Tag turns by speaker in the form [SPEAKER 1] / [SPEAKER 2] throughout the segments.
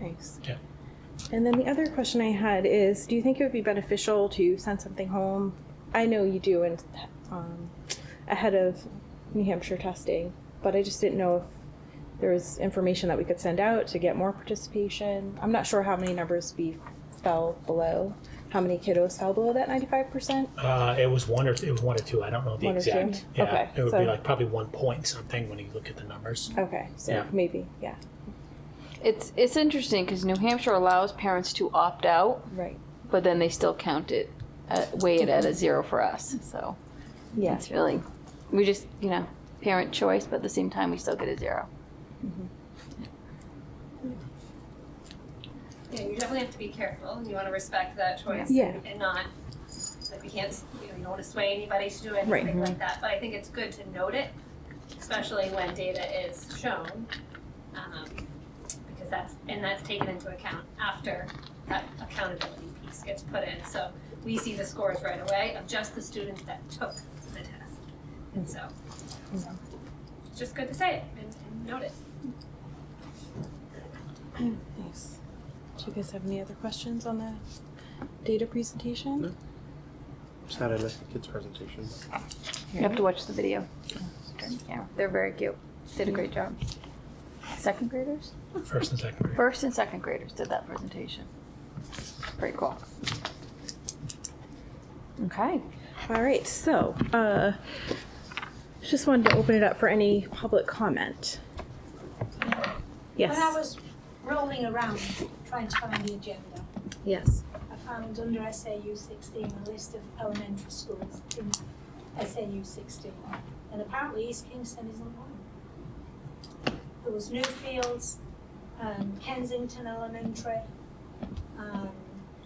[SPEAKER 1] use.
[SPEAKER 2] Okay.
[SPEAKER 1] And then the other question I had is, do you think it would be beneficial to send something home? I know you do, and um, ahead of New Hampshire testing, but I just didn't know if there was information that we could send out to get more participation. I'm not sure how many numbers we fell below, how many kiddos fell below that 95%.
[SPEAKER 2] Uh, it was one or it was one or two. I don't know the
[SPEAKER 1] One or two?
[SPEAKER 2] exact. Yeah,
[SPEAKER 1] Okay,
[SPEAKER 2] it would
[SPEAKER 1] so-
[SPEAKER 2] be like probably one point something when you look at the numbers.
[SPEAKER 1] Okay, so
[SPEAKER 2] Yeah.
[SPEAKER 1] maybe, yeah,
[SPEAKER 3] It's it's interesting because New Hampshire allows parents to opt out,
[SPEAKER 1] right,
[SPEAKER 3] but then they still count it, uh, weigh it at a zero for us. So
[SPEAKER 1] yeah.
[SPEAKER 3] it's really, we just you know parent choice, but at the same time we still get a zero.
[SPEAKER 4] Yeah, you definitely have to be careful. You want to respect that choice.
[SPEAKER 1] Yeah.
[SPEAKER 4] And not, like, we can't, you know, you don't want to sway anybody to do
[SPEAKER 1] Right.
[SPEAKER 4] anything like that. But I think it's good to note it, especially when data is shown. um, Because that's, and that's taken into account after that accountability piece gets put in. So we see the scores right away of just the students that took the test. And so,
[SPEAKER 1] Mm-hmm.
[SPEAKER 4] it's just good to say it and- and note it.
[SPEAKER 1] Thanks. Do you guys have any other questions on the data presentation?
[SPEAKER 5] No. Sad I missed the kids' presentation.
[SPEAKER 3] You have to watch the video. Yeah, they're very cute. Did a great job. Second graders,
[SPEAKER 2] First and second grade.
[SPEAKER 3] first and second graders did that presentation. Pretty cool. Okay.
[SPEAKER 1] All right, so uh, just wanted to open it up for any public comment. Yes.
[SPEAKER 6] When I was rolling around trying to find the agenda,
[SPEAKER 1] yes.
[SPEAKER 6] I found under SAU 16 a list of elementary schools in SAU 16. And apparently East Kingston isn't one. There was Newfields, um, Kensington Elementary, um,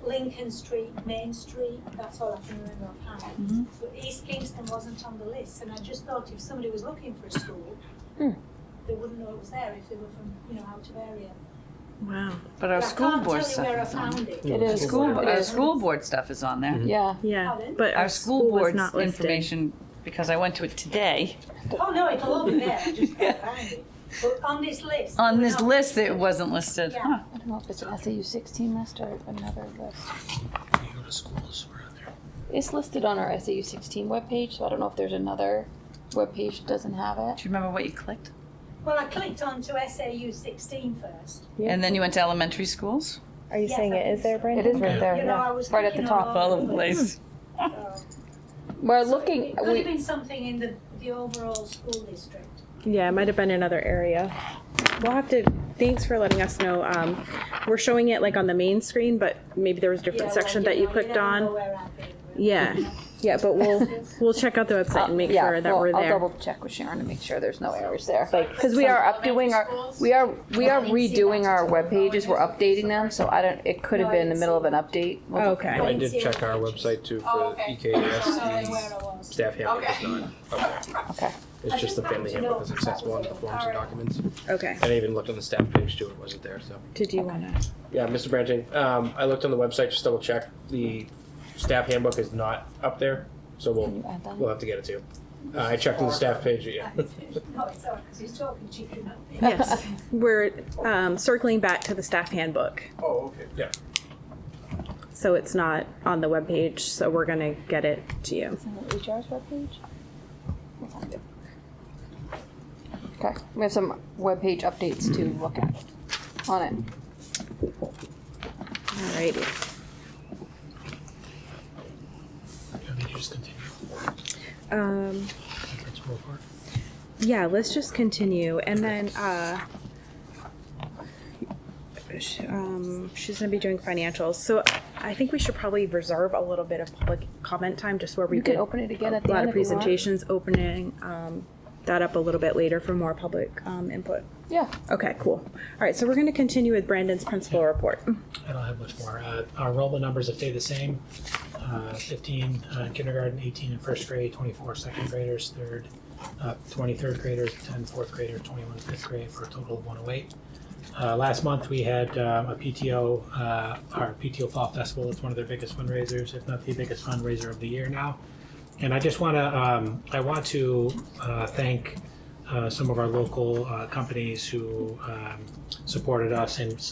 [SPEAKER 6] Lincoln Street, Main Street, that's all I can remember offhand. But East Kingston wasn't on the list, and I just thought if somebody was looking for a school,
[SPEAKER 1] Hmm.
[SPEAKER 6] they wouldn't know it was there if they were from, you know, out of area.
[SPEAKER 1] Wow.
[SPEAKER 7] But our
[SPEAKER 6] But I
[SPEAKER 7] school
[SPEAKER 6] can't
[SPEAKER 7] board
[SPEAKER 6] tell you
[SPEAKER 7] stuff
[SPEAKER 6] where I
[SPEAKER 7] is on.
[SPEAKER 6] found it.
[SPEAKER 3] It is.
[SPEAKER 7] School,
[SPEAKER 3] It
[SPEAKER 7] our
[SPEAKER 3] is.
[SPEAKER 7] school board stuff is on there.
[SPEAKER 3] Yeah.
[SPEAKER 1] Yeah,
[SPEAKER 6] Pardon?
[SPEAKER 1] but
[SPEAKER 7] Our school
[SPEAKER 1] was
[SPEAKER 7] board's
[SPEAKER 1] not listed.
[SPEAKER 7] information, because I went to it today,
[SPEAKER 6] Oh, no, it'll all be there, I just can't find it. But on this list.
[SPEAKER 7] on
[SPEAKER 6] we're
[SPEAKER 7] this
[SPEAKER 6] not-
[SPEAKER 7] list, it wasn't listed.
[SPEAKER 6] Yeah.
[SPEAKER 7] Huh.
[SPEAKER 3] I don't know if it's an SAU 16 list or another list.
[SPEAKER 2] You go to schools where out there.
[SPEAKER 3] It's listed on our SAU 16 webpage, so I don't know if there's another webpage that doesn't have
[SPEAKER 7] Do
[SPEAKER 3] it.
[SPEAKER 7] you remember what you clicked?
[SPEAKER 6] Well, I clicked on to SAU 16 first.
[SPEAKER 1] Yeah.
[SPEAKER 7] And then you went to elementary schools?
[SPEAKER 1] Are you
[SPEAKER 6] Yes,
[SPEAKER 1] saying
[SPEAKER 6] I
[SPEAKER 1] it is
[SPEAKER 6] think
[SPEAKER 1] there,
[SPEAKER 6] so.
[SPEAKER 1] Brandon?
[SPEAKER 3] It is right there,
[SPEAKER 6] You know, I
[SPEAKER 3] yeah.
[SPEAKER 6] was
[SPEAKER 3] Right at the
[SPEAKER 6] thinking of
[SPEAKER 3] top.
[SPEAKER 7] All over the place.
[SPEAKER 6] Oh.
[SPEAKER 3] We're
[SPEAKER 6] So
[SPEAKER 3] looking,
[SPEAKER 6] It could have
[SPEAKER 3] we,
[SPEAKER 6] been something in the, the overall school district.
[SPEAKER 1] Yeah, it might have been another area. We'll have to. Thanks for letting us know. Um, we're showing it like on the main screen, but maybe there was a different
[SPEAKER 6] Yeah,
[SPEAKER 1] section
[SPEAKER 6] well,
[SPEAKER 1] that you
[SPEAKER 6] know,
[SPEAKER 1] clicked
[SPEAKER 6] don't
[SPEAKER 1] on.
[SPEAKER 6] know where I've been, really.
[SPEAKER 1] Yeah, yeah, but we'll we'll check out the website and make
[SPEAKER 3] yeah,
[SPEAKER 1] sure that
[SPEAKER 3] well,
[SPEAKER 1] we're
[SPEAKER 3] I'll
[SPEAKER 1] there.
[SPEAKER 3] double check with Sharon to make sure there's no errors there.
[SPEAKER 1] Like-
[SPEAKER 3] Because we are updoing our, we are, we are redoing our web pages. we're updating them, so I don't, it could have been in the middle of an update. We'll-
[SPEAKER 1] Okay.
[SPEAKER 6] I
[SPEAKER 5] I
[SPEAKER 6] didn't
[SPEAKER 5] did
[SPEAKER 6] see it.
[SPEAKER 5] check our website too
[SPEAKER 4] Oh,
[SPEAKER 5] for
[SPEAKER 4] okay.
[SPEAKER 6] Sorry,
[SPEAKER 5] EKS.
[SPEAKER 6] where I was.
[SPEAKER 5] The Staff handbook is not up there.
[SPEAKER 3] Okay.
[SPEAKER 6] I
[SPEAKER 5] It's
[SPEAKER 6] just
[SPEAKER 5] just the
[SPEAKER 6] wanted
[SPEAKER 5] family
[SPEAKER 6] to
[SPEAKER 5] handbook
[SPEAKER 6] know
[SPEAKER 5] is
[SPEAKER 6] if
[SPEAKER 5] accessible
[SPEAKER 6] that was
[SPEAKER 5] under
[SPEAKER 6] a
[SPEAKER 5] forms and
[SPEAKER 6] parallel.
[SPEAKER 5] documents.
[SPEAKER 1] Okay.
[SPEAKER 5] And I even looked on the staff page too, it wasn't there, so.
[SPEAKER 1] Did you want to?
[SPEAKER 5] Yeah, Mr. Branting, um, I looked on the website, just double check. The staff handbook is not up there, so
[SPEAKER 3] Can
[SPEAKER 5] we'll,
[SPEAKER 3] you add that?
[SPEAKER 5] we'll have to get it to you. Uh, I checked on the staff page, yeah.
[SPEAKER 6] Oh, it's all right, 'cause he's talking to you. now.
[SPEAKER 1] Yes, we're um, circling back to the staff handbook,
[SPEAKER 5] Oh, okay. Yeah.
[SPEAKER 1] so it's not on the webpage. So we're gonna get it to you.
[SPEAKER 3] It's on the HR's webpage? We'll find it. Okay, we have some webpage updates to look at on it.
[SPEAKER 1] Alrighty.
[SPEAKER 2] I mean, you just continue.
[SPEAKER 1] Um,
[SPEAKER 2] That's more part.
[SPEAKER 1] yeah, let's just continue, and then uh, sh- um, she's gonna be doing financials. So I think we should probably reserve a little bit of public comment time, just where we
[SPEAKER 3] You
[SPEAKER 1] could
[SPEAKER 3] can open it again at
[SPEAKER 1] a
[SPEAKER 3] the
[SPEAKER 1] lot
[SPEAKER 3] end
[SPEAKER 1] of
[SPEAKER 3] if you want.
[SPEAKER 1] presentations opening um, that up a little bit later for more public um, input.
[SPEAKER 3] Yeah.
[SPEAKER 1] Okay, cool. All right, so we're going to continue with Brandon's principal report.
[SPEAKER 2] I don't have much more. Uh, our enrollment numbers have stayed the same. Uh, 15 uh, in kindergarten, 18 in first grade, 24 second graders, third, uh, 23rd graders, 10 fourth grader, 21 fifth grade for a total of 108. Uh, last month we had um, a PTO, uh, our PTO Fall Festival. It's one of their biggest fundraisers, if not the biggest fundraiser of the year now. And I just want to, um, I want to uh, thank uh, some of our local uh, companies who um, supported us and